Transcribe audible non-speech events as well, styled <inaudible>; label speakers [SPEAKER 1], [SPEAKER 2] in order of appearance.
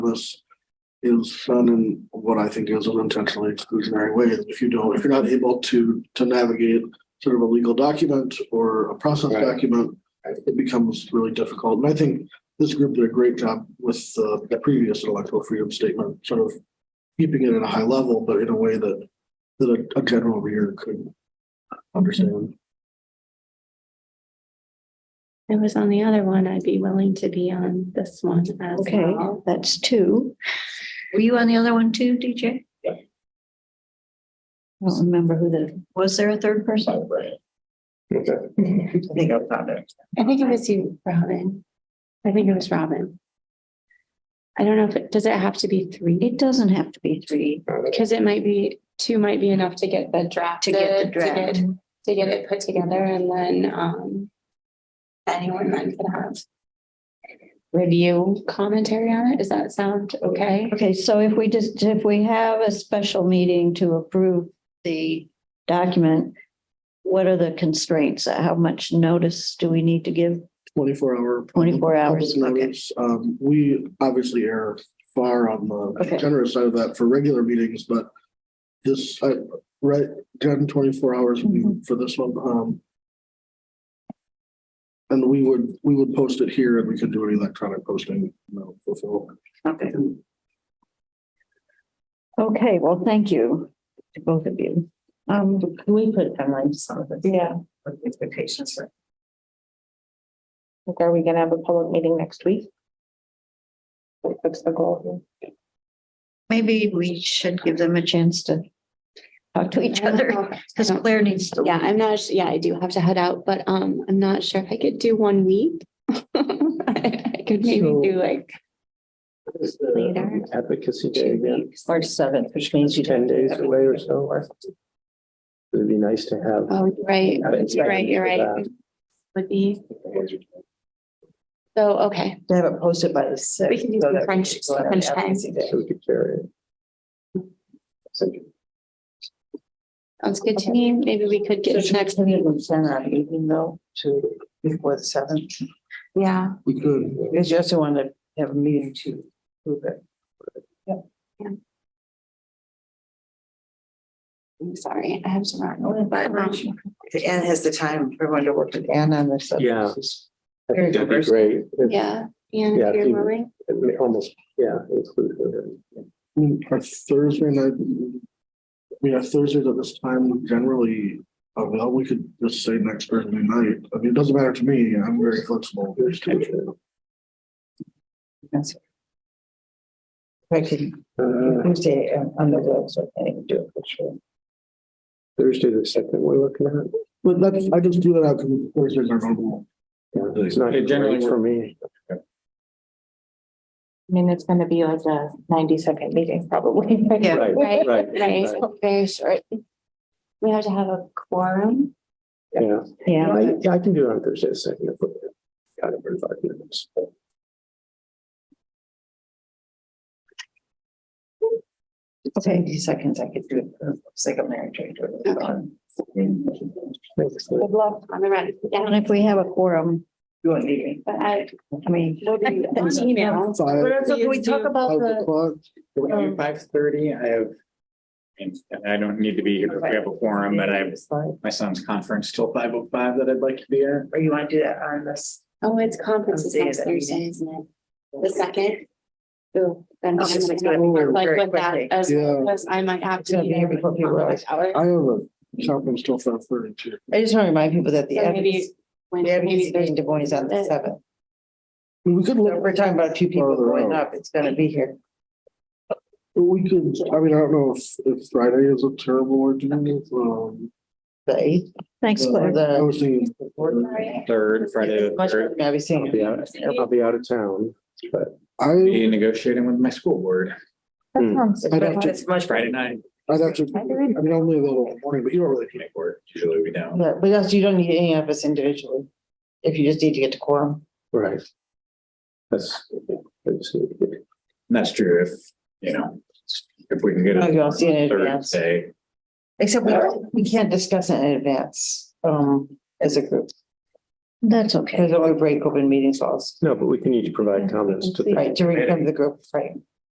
[SPEAKER 1] this is done in what I think is an intentionally exclusionary way. If you don't, if you're not able to, to navigate sort of a legal document or a process
[SPEAKER 2] Right.
[SPEAKER 1] document, it becomes really difficult. And I think this group did a great job with uh, the previous electoral freedom statement, sort of keeping it at a high level, but in a way that, that a- a general reader could understand.
[SPEAKER 3] I was on the other one, I'd be willing to be on this one as
[SPEAKER 4] Okay,
[SPEAKER 3] well.
[SPEAKER 4] that's two.
[SPEAKER 5] Were you on the other one too, DJ?
[SPEAKER 4] I don't remember who the, was there a third person?
[SPEAKER 2] Okay,
[SPEAKER 5] I think I was on it.
[SPEAKER 3] I think it was you, Robin. I think it was Robin. I don't know if it, does it have to be three?
[SPEAKER 4] It doesn't have to be three.
[SPEAKER 2] all right.
[SPEAKER 3] Because it might be, two might be enough to get the draft.
[SPEAKER 4] To get the draft.
[SPEAKER 3] To get it put together and then, um, anyone then could have review commentary on it. Does that sound okay?
[SPEAKER 4] Okay, so if we just, if we have a special meeting to approve the document, what are the constraints? How much notice do we need to give?
[SPEAKER 1] Twenty-four hour.
[SPEAKER 4] 24 hours,
[SPEAKER 1] public
[SPEAKER 4] okay.
[SPEAKER 1] notice. Um, we obviously err far on the
[SPEAKER 4] Okay.
[SPEAKER 1] generous side of that for regular meetings, but this, I, right, ten, twenty-four hours would
[SPEAKER 4] Mm-hmm.
[SPEAKER 1] be for this one, um. And we would, we would post it here and we could do an electronic posting, you know, fulfill.
[SPEAKER 4] Okay. Okay, well, thank you to both of you. Um,
[SPEAKER 5] We put timelines some of the
[SPEAKER 6] Yeah,
[SPEAKER 5] expectations. right?
[SPEAKER 6] like, are we gonna have a public meeting next week? That's the goal.
[SPEAKER 4] maybe we should give them a chance to talk to each
[SPEAKER 3] I don't
[SPEAKER 4] other <laughs>
[SPEAKER 3] know if-
[SPEAKER 4] because Claire needs to.
[SPEAKER 3] Yeah, I'm not, su- yeah, I do have to head out, but um, I'm not sure if I could do one week. <laughs> I I could maybe
[SPEAKER 2] So-
[SPEAKER 3] do like Later.
[SPEAKER 2] Advocacy Day
[SPEAKER 3] two
[SPEAKER 2] again,
[SPEAKER 3] weeks.
[SPEAKER 6] March seventh, which means you
[SPEAKER 2] ten days away or so. It'd be nice to have.
[SPEAKER 3] Oh, you're right,
[SPEAKER 2] have it
[SPEAKER 3] you're right, you're right.
[SPEAKER 2] for
[SPEAKER 3] Would be,
[SPEAKER 2] that.
[SPEAKER 3] so, okay,
[SPEAKER 6] To have it posted by the sixth.
[SPEAKER 3] We can do
[SPEAKER 6] so
[SPEAKER 3] some
[SPEAKER 6] that
[SPEAKER 3] French-
[SPEAKER 6] people still have
[SPEAKER 3] French
[SPEAKER 6] the
[SPEAKER 3] time.
[SPEAKER 6] advocacy day.
[SPEAKER 2] So we could carry it. Send you-
[SPEAKER 3] sounds good to me. Maybe we could
[SPEAKER 6] So
[SPEAKER 3] get
[SPEAKER 6] should
[SPEAKER 3] next,
[SPEAKER 6] next meeting was sent out evening though to before the seventh,
[SPEAKER 3] yeah,
[SPEAKER 1] We could,
[SPEAKER 6] because you also want to have a meeting to prove it.
[SPEAKER 3] I'm sorry, I have to run. but, um,
[SPEAKER 6] Anne has the time for everyone to work with Anne on this.
[SPEAKER 2] Yeah. I
[SPEAKER 6] Very
[SPEAKER 2] think that'd be
[SPEAKER 6] diverse.
[SPEAKER 2] great. It-
[SPEAKER 3] Yeah, and
[SPEAKER 2] Yeah, if
[SPEAKER 3] if you're
[SPEAKER 2] you-
[SPEAKER 3] willing,
[SPEAKER 2] it may Almost, yeah, include her.
[SPEAKER 1] I mean, our Thursday night. I mean, our Thursdays at this time generally, uh, well, we could just say next Thursday night, I mean, it doesn't matter to me, I'm very flexible.
[SPEAKER 6] That's- If I can,
[SPEAKER 2] Uh,
[SPEAKER 6] Tuesday um, on the web, so I can do it for sure.
[SPEAKER 2] Thursday, the second we're looking at.
[SPEAKER 1] But that's, I just do that out because Thursdays are normal.
[SPEAKER 2] Yeah, It's not
[SPEAKER 7] It generally
[SPEAKER 2] great for me.
[SPEAKER 6] I mean, it's gonna be like a ninety second meeting probably. <laughs>
[SPEAKER 4] Yeah.
[SPEAKER 2] Right,
[SPEAKER 3] right,
[SPEAKER 2] right.
[SPEAKER 3] right, very short. We have to have a quorum.
[SPEAKER 2] Yeah,
[SPEAKER 4] Yeah,
[SPEAKER 2] I, yeah, I can do it on Thursday, the second. if we're- Got it for five minutes.
[SPEAKER 6] Ninety seconds, I could do it, um, for the sake of marriage. I do it.
[SPEAKER 2] Thanks.
[SPEAKER 3] Good luck on the run.
[SPEAKER 4] and
[SPEAKER 3] Yeah,
[SPEAKER 4] if we have a quorum,
[SPEAKER 6] You won't need me.
[SPEAKER 3] but I,
[SPEAKER 4] I mean,
[SPEAKER 3] an email.
[SPEAKER 1] Five,
[SPEAKER 6] we talk about
[SPEAKER 1] five o'clock,
[SPEAKER 6] Um,
[SPEAKER 7] Five thirty, I have, and and I don't need to be here, but we have a forum, but I have my son's conference till five oh five that I'd like to be at.
[SPEAKER 6] Or you want to do that on this?
[SPEAKER 3] Oh, it's conference is
[SPEAKER 6] Thursday,
[SPEAKER 3] next
[SPEAKER 6] that meeting.
[SPEAKER 3] Thursday, isn't it? The second? Ooh, then
[SPEAKER 6] Oh,
[SPEAKER 3] I'm gonna
[SPEAKER 6] it's gonna
[SPEAKER 3] have
[SPEAKER 6] be
[SPEAKER 3] to
[SPEAKER 6] over
[SPEAKER 3] work
[SPEAKER 6] very
[SPEAKER 3] with that
[SPEAKER 6] quickly.
[SPEAKER 3] as,
[SPEAKER 1] Yeah.
[SPEAKER 3] because I might have
[SPEAKER 6] It's
[SPEAKER 3] to
[SPEAKER 6] gonna
[SPEAKER 3] be there
[SPEAKER 6] be here before
[SPEAKER 3] like
[SPEAKER 6] people
[SPEAKER 3] conference hours.
[SPEAKER 1] I have a conference till five thirty too.
[SPEAKER 6] I just want to remind people that the
[SPEAKER 3] So maybe
[SPEAKER 6] advocacy,
[SPEAKER 3] When,
[SPEAKER 6] the advocacy
[SPEAKER 3] maybe
[SPEAKER 6] meeting
[SPEAKER 3] there's,
[SPEAKER 6] to is on the seventh.
[SPEAKER 1] I mean, We could
[SPEAKER 6] So if
[SPEAKER 1] look,
[SPEAKER 6] We're talking about two people
[SPEAKER 1] Further
[SPEAKER 6] going
[SPEAKER 1] out.
[SPEAKER 6] up. It's gonna be here.
[SPEAKER 1] we could, I mean, I don't know if, if Friday is a terrible or um.
[SPEAKER 6] The eighth.
[SPEAKER 4] thanks, Claire.
[SPEAKER 1] I was thinking,
[SPEAKER 6] the fourth.
[SPEAKER 7] Third, Friday, the
[SPEAKER 6] Much
[SPEAKER 7] third,
[SPEAKER 6] better, I'll be seeing
[SPEAKER 2] I'll be out, I'll be out of town.
[SPEAKER 1] I,
[SPEAKER 7] be negotiating with my school board
[SPEAKER 2] Hmm.
[SPEAKER 1] I'd have
[SPEAKER 6] it.
[SPEAKER 1] to-
[SPEAKER 6] It's much better.
[SPEAKER 7] Friday night.
[SPEAKER 1] I'd have to, I mean, I'm only available in the morning, but you don't really.
[SPEAKER 7] Make work, usually we don't.
[SPEAKER 6] But, but also you don't need any of us individually. If you just need to get to quorum.
[SPEAKER 2] Right. That's, that's,
[SPEAKER 7] And That's true if, you know, if we can get
[SPEAKER 6] Oh, you don't see it in
[SPEAKER 7] it
[SPEAKER 6] advance.
[SPEAKER 7] Thursday.
[SPEAKER 6] Except we, we can't discuss it in advance, um, as a group.
[SPEAKER 4] That's okay.
[SPEAKER 6] Because then we break open meetings laws.
[SPEAKER 2] no, but we can each provide comments to the
[SPEAKER 6] Right, to reclaim the group, right.